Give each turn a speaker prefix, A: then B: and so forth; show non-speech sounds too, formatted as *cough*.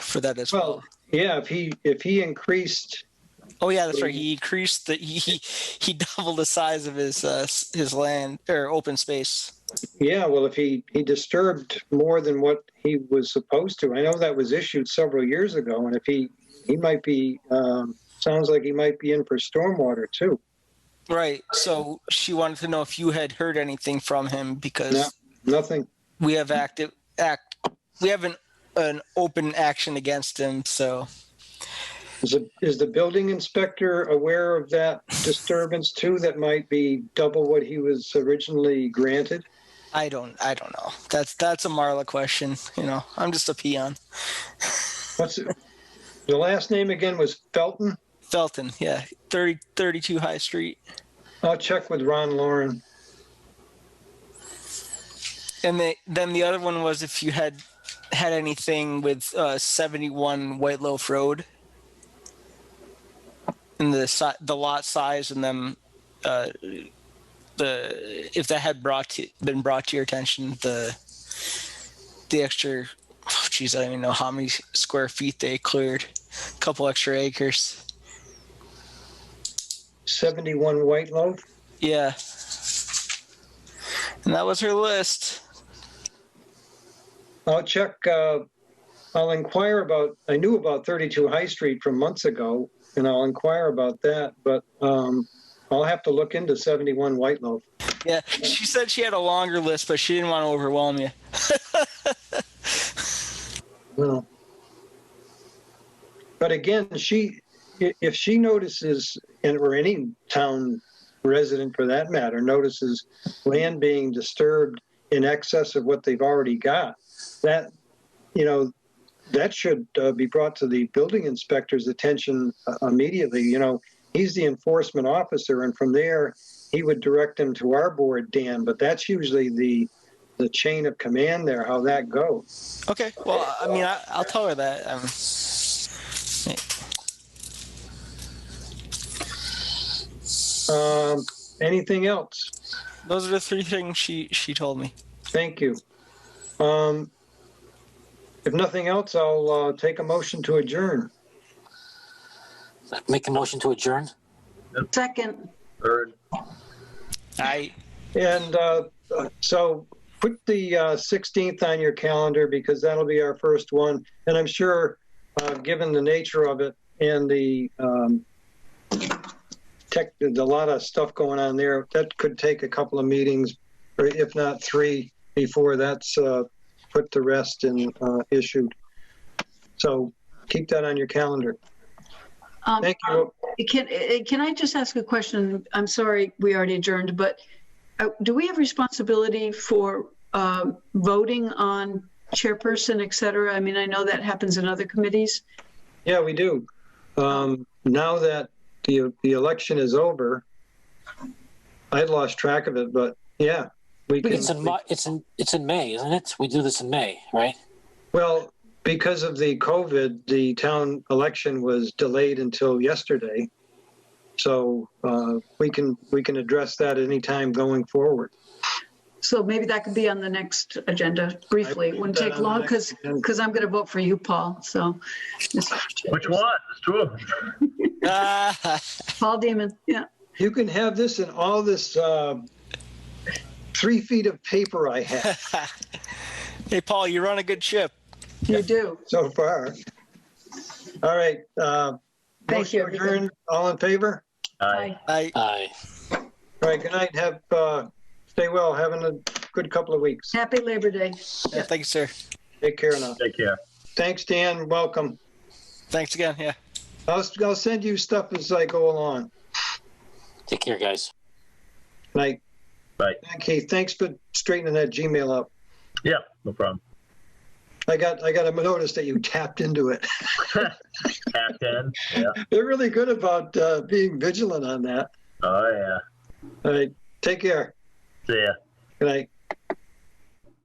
A: for that as well.
B: Well, yeah, if he, if he increased,
A: Oh yeah, that's right. He increased the he he- he doubled the size of his uh, s- his land or open space.
B: yeah, well, if he, he disturbed more than what he was supposed to, I know that was issued several years ago, and if he, he might be, um, sounds like he might be in for stormwater too.
A: Right. So she wanted to know if you had heard anything from him because
B: No. Nothing,
A: we have active act we have an an open action against him. So
B: Is, the is the building inspector aware of that disturbance too, that might be double what he was originally granted?
A: I don't I don't know. That's that's a Marla question. You know, I'm just a peon.
B: What's, it- the last name again was Felton?
A: Felton, yeah, 30, 32 High Street,
B: I'll check with Ron Lauren.
A: and the, then the other one was if you had had anything with uh, seventy one White Loaf Road, and the si- the lot size and them. Uh, the if that had brought to, been brought to your attention the the extra oh geez I don't even know how many square feet they cleared a couple extra acres
B: 71 White Loaf?
A: yeah and that was her list
B: I'll check, uh, I'll inquire about, I knew about 32 High Street from months ago, and I'll inquire about that, but, um, I'll have to look into 71 White Loaf.
A: Yeah, she said she had a longer list, but she didn't want to overwhelm you.
B: Well, but again, she, i- if she notices, and or any town resident for that matter, notices land being disturbed in excess of what they've already got, that, you know, that should uh, be brought to the building inspector's attention uh, immediately. You know, he's the enforcement officer, and from there, he would direct them to our board, Dan. But that's usually the the chain of command there, how that goes.
A: Okay. Well, I mean, I, I'll tell her that. Um,
B: Um, anything else?
A: those are the three things she she told me.
B: Thank you. Um, if nothing else, I'll uh, take a motion to adjourn.
C: Make a motion to adjourn?
D: Second,
E: Third.
A: I *laughs*
B: And uh, so put the uh, 16th on your calendar because that'll be our first one. And I'm sure, uh, given the nature of it and the um, tech, there's a lot of stuff going on there, that could take a couple of meetings, or if not three, before that's uh, put to rest and uh, issued. So keep that on your calendar.
D: um,
B: Thank you.
D: can, eh, can I just ask a question? I'm sorry, we already adjourned, but uh, do we have responsibility for um, voting on chairperson, et cetera? I mean, I know that happens in other committees.
B: Yeah, we do. Um, now that the, the election is over, I lost track of it, but yeah, we
C: It's in,
B: can,
C: Mar- it's in, it's in May, isn't it? We do this in May, right?
B: well, because of the COVID, the town election was delayed until yesterday. So, uh, we can, we can address that anytime going forward.
D: So maybe that could be on the next agenda briefly. It wouldn't
B: I put that
D: take
B: on the
D: long
B: next
D: because,
B: agenda.
D: because I'm going to vote for you, Paul. So. Mr. Chair.
E: Which one? There's two of them.
A: ah,
D: Paul Damon, yeah.
B: You can have this and all this, uh, three feet of paper
A: *laughs*
B: I have
A: hey Paul, you run a good ship.
D: You do.
B: so far. All right, uh.
D: Thank you,
B: motion adjourned. All in favor?
E: Aye.
A: I
C: Aye.
B: All right, good night. Have, uh, stay well. Having a good couple of weeks.
D: Happy Labor Day.
A: yeah, thank you, sir.
B: Take care now.
E: Take care.
B: Thanks, Dan. Welcome.
A: Thanks again. Yeah.
B: I'll, I'll send you stuff as I go along.
C: Take care, guys.
B: Night.
E: Bye.
B: Keith, thanks for straightening that Gmail up.
E: Yeah, no problem.
B: I got, I got a notice that you tapped into it. *laughs*
E: Half ten. Yeah.
B: They're really good about, uh, being vigilant on that.
E: Oh, yeah.
B: All right. Take care.
E: See ya.
B: Good night.